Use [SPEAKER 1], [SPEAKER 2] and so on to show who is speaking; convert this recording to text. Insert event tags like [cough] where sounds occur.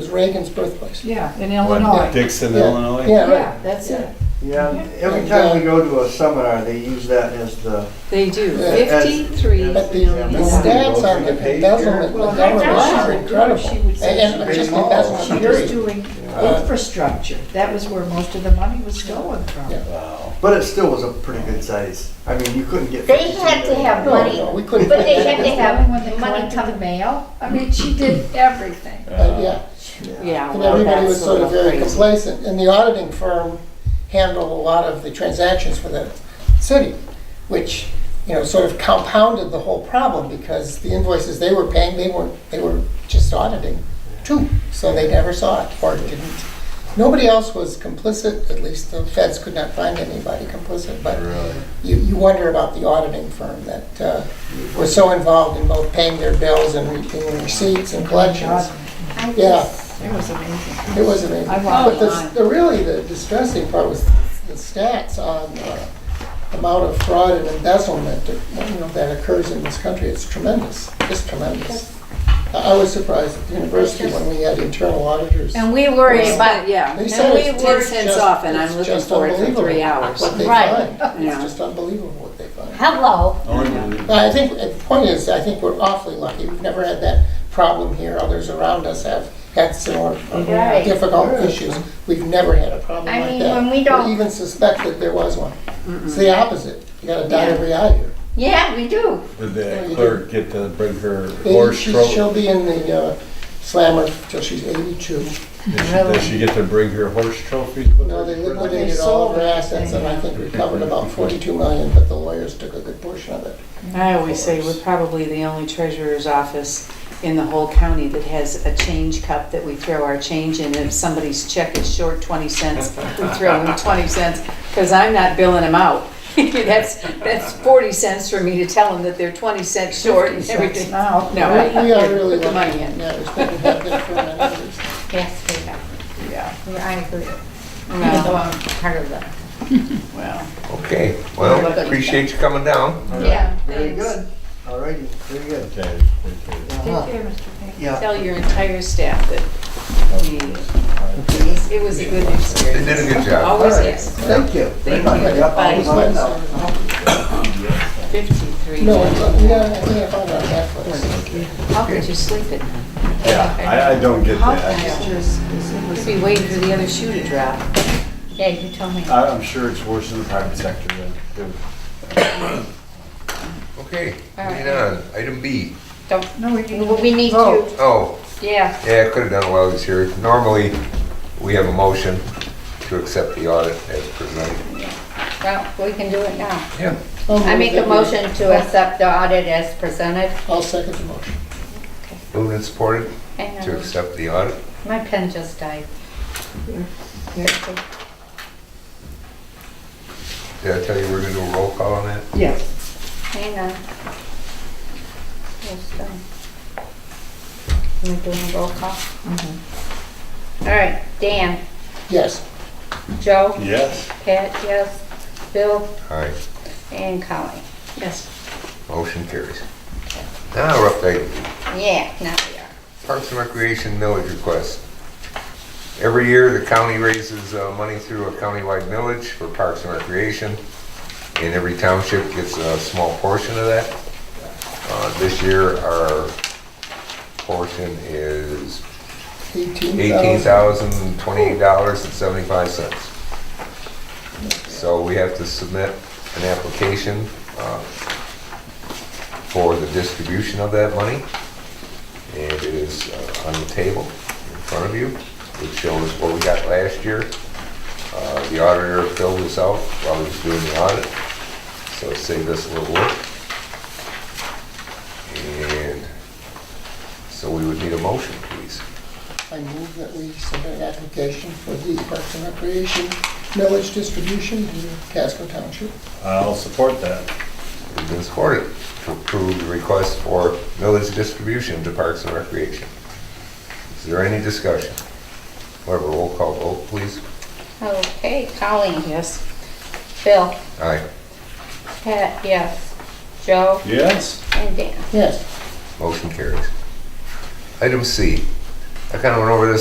[SPEAKER 1] Reagan's birthplace.
[SPEAKER 2] Yeah, in Illinois.
[SPEAKER 3] Dixon,
[SPEAKER 1] Yeah.
[SPEAKER 3] Illinois?
[SPEAKER 1] Yeah,
[SPEAKER 2] Yeah,
[SPEAKER 1] right.
[SPEAKER 2] that's it.
[SPEAKER 4] Yeah, every time we go to a seminar, they use that as the,
[SPEAKER 5] They do,
[SPEAKER 4] Yeah.
[SPEAKER 5] fifty-three
[SPEAKER 1] But the the stats on the embezzlement, the
[SPEAKER 2] Well,
[SPEAKER 1] government
[SPEAKER 2] that's-
[SPEAKER 1] is incredible.
[SPEAKER 2] she would say
[SPEAKER 1] And and
[SPEAKER 4] she-
[SPEAKER 1] just
[SPEAKER 4] Big malls.
[SPEAKER 2] She
[SPEAKER 1] embezzlement,
[SPEAKER 2] was
[SPEAKER 1] period.
[SPEAKER 2] doing infrastructure. That was where most of the money was going from.
[SPEAKER 1] Yeah.
[SPEAKER 3] Wow.
[SPEAKER 4] but it still was a pretty good size. I mean, you couldn't get.
[SPEAKER 6] They had to have
[SPEAKER 1] No,
[SPEAKER 6] money,
[SPEAKER 1] no, we
[SPEAKER 6] but
[SPEAKER 1] couldn't.
[SPEAKER 6] they had to have
[SPEAKER 2] When they
[SPEAKER 6] money
[SPEAKER 2] collected
[SPEAKER 6] coming.
[SPEAKER 2] the mail, I mean, she did everything.
[SPEAKER 1] Uh, Yeah,
[SPEAKER 5] Yeah,
[SPEAKER 1] and
[SPEAKER 5] well,
[SPEAKER 1] everybody was
[SPEAKER 5] that's a
[SPEAKER 1] sort
[SPEAKER 5] little
[SPEAKER 1] of very
[SPEAKER 5] crazy.
[SPEAKER 1] complacent. And the auditing firm handled a lot of the transactions for the city, which, you know, sort of compounded the whole problem because the invoices they were paying, they weren't, they were just auditing too. So they never saw it or didn't. Nobody else was complicit, at least the feds could not find anybody complicit, but
[SPEAKER 3] Really?
[SPEAKER 1] you, you wonder about the auditing firm that uh, was so involved in both paying their bills and reaping receipts and collections.
[SPEAKER 6] I
[SPEAKER 1] Yeah.
[SPEAKER 6] just-
[SPEAKER 2] Oh, It was amazing.
[SPEAKER 1] It was amazing.
[SPEAKER 2] I
[SPEAKER 1] But
[SPEAKER 2] walked
[SPEAKER 1] the,
[SPEAKER 2] on.
[SPEAKER 1] the really, the distressing part was the stats on uh, amount of fraud and embezzlement that, you know, that occurs in this country. It's tremendous, it's tremendous. I I was surprised at the university when we had internal auditors.
[SPEAKER 6] And we worry
[SPEAKER 5] But,
[SPEAKER 6] about,
[SPEAKER 5] yeah,
[SPEAKER 1] They said
[SPEAKER 5] and
[SPEAKER 1] it's
[SPEAKER 5] we work
[SPEAKER 1] just-
[SPEAKER 5] since off, and I'm
[SPEAKER 1] it's
[SPEAKER 5] looking
[SPEAKER 1] just
[SPEAKER 5] forward for three
[SPEAKER 1] unbelievable
[SPEAKER 5] hours.
[SPEAKER 1] What they find,
[SPEAKER 6] Right.
[SPEAKER 5] [laughs] Yeah.
[SPEAKER 1] it's just unbelievable what they find.
[SPEAKER 6] hello,
[SPEAKER 3] Only-
[SPEAKER 1] But I think, the point is, I think we're awfully lucky. We've never had that problem here. Others around us have had similar
[SPEAKER 6] Right.
[SPEAKER 1] difficult issues. We've never had a problem
[SPEAKER 6] I
[SPEAKER 1] like
[SPEAKER 6] mean,
[SPEAKER 1] that.
[SPEAKER 6] when we don't-
[SPEAKER 1] Or even suspected there was one. It's the opposite. You gotta dot every I here.
[SPEAKER 6] yeah, we do.
[SPEAKER 3] Did the clerk get to bring her
[SPEAKER 1] Maybe
[SPEAKER 3] horse
[SPEAKER 1] she-
[SPEAKER 3] trophy?
[SPEAKER 1] She'll be in the uh, slammer till she's eighty-two.
[SPEAKER 3] Did she get to bring her horse trophies with
[SPEAKER 1] No, they
[SPEAKER 3] her?
[SPEAKER 1] liquidated all of her assets and I think recovered about forty-two million, but the lawyers took a good portion of it.
[SPEAKER 5] I always say we're probably the only treasurer's office in the whole county that has a change cup that we throw our change in. If somebody's check is short twenty cents, we throw them twenty cents, because I'm not billing them out. [laughs] That's, that's forty cents for me to tell them that they're twenty cents short and everything.
[SPEAKER 2] Now,
[SPEAKER 5] No.
[SPEAKER 1] We we are really
[SPEAKER 5] Put the money
[SPEAKER 1] lucky.
[SPEAKER 5] in.
[SPEAKER 1] Yeah, it's been happening for many years.
[SPEAKER 6] Yes, we are.
[SPEAKER 2] yeah,
[SPEAKER 6] Yeah, I agree. Even though
[SPEAKER 5] Well,
[SPEAKER 6] I'm part of the.
[SPEAKER 2] well.
[SPEAKER 7] Okay, well, appreciate you coming down.
[SPEAKER 4] All right,
[SPEAKER 6] Yeah,
[SPEAKER 4] Very
[SPEAKER 5] thanks.
[SPEAKER 4] good. All righty, very good.
[SPEAKER 3] Okay, okay.
[SPEAKER 4] Uh-huh. Yeah,
[SPEAKER 5] Tell your entire staff that we, it was a good
[SPEAKER 7] They
[SPEAKER 5] experience.
[SPEAKER 7] did a good job.
[SPEAKER 5] Always is,
[SPEAKER 4] thank you.
[SPEAKER 5] Thank you.
[SPEAKER 4] Yeah, all the time now.
[SPEAKER 5] fifty-three.
[SPEAKER 1] No, it's, yeah, I think I found it on Netflix.
[SPEAKER 5] How could you sleep at night?
[SPEAKER 3] Yeah, I, I don't get
[SPEAKER 2] How
[SPEAKER 3] that.
[SPEAKER 2] fast is, is it was
[SPEAKER 5] Could be waiting for the other shoe to drop.
[SPEAKER 6] yeah, you told me.
[SPEAKER 3] I- I'm sure it's worse in the private sector than, than-
[SPEAKER 7] Okay, moving on, item B.
[SPEAKER 2] No, we
[SPEAKER 6] Well,
[SPEAKER 2] didn't.
[SPEAKER 6] We need to,
[SPEAKER 7] Oh,
[SPEAKER 6] yeah.
[SPEAKER 7] yeah, I could have done it while I was here. Normally, we have a motion to accept the audit as presented.
[SPEAKER 6] Well, we can do it now.
[SPEAKER 7] Yeah.
[SPEAKER 6] I make a motion to accept the audit as presented.
[SPEAKER 1] I'll second the motion.
[SPEAKER 7] Moved and supported
[SPEAKER 6] Hang
[SPEAKER 7] to
[SPEAKER 6] on,
[SPEAKER 7] accept the audit.
[SPEAKER 6] my pen just died.
[SPEAKER 7] Did I tell you we're gonna do a roll call on that?
[SPEAKER 2] Yes.
[SPEAKER 6] Hang on. Just, um, Am I doing a roll call? All right, Dan,
[SPEAKER 1] Yes,
[SPEAKER 6] Joe,
[SPEAKER 3] yes.
[SPEAKER 6] Pat, yes, Bill,
[SPEAKER 7] All right,
[SPEAKER 6] and Colleen.
[SPEAKER 5] Yes.
[SPEAKER 7] motion carries. Now, we're up to item
[SPEAKER 6] Yeah, now we are.
[SPEAKER 7] Parks and Recreation millage request. Every year, the county raises uh, money through a countywide millage for Parks and Recreation, and every township gets a small portion of that. Uh, This year, our portion is
[SPEAKER 1] eighteen thousand.
[SPEAKER 7] $18,028.75. So we have to submit an application uh, for the distribution of that money. And it is uh, on the table in front of you. It shows what we got last year. Uh, The auditor filled this out while he was doing the audit, so it saved us a little work. And so we would need a motion, please.
[SPEAKER 1] I move that we submit an application for the Parks and Recreation millage distribution to Casco Township.
[SPEAKER 3] I'll support that.
[SPEAKER 7] It's been supported to approve the request for millage distribution to Parks and Recreation. Is there any discussion? Whatever, roll call vote, please.
[SPEAKER 6] Okay, Colleen,
[SPEAKER 5] Yes.
[SPEAKER 6] Bill,
[SPEAKER 7] Aye.
[SPEAKER 6] Pat, yes, Joe,
[SPEAKER 3] Yes?
[SPEAKER 6] and Dan.
[SPEAKER 1] Yes.
[SPEAKER 7] Motion carries. Item C. I kind of went over this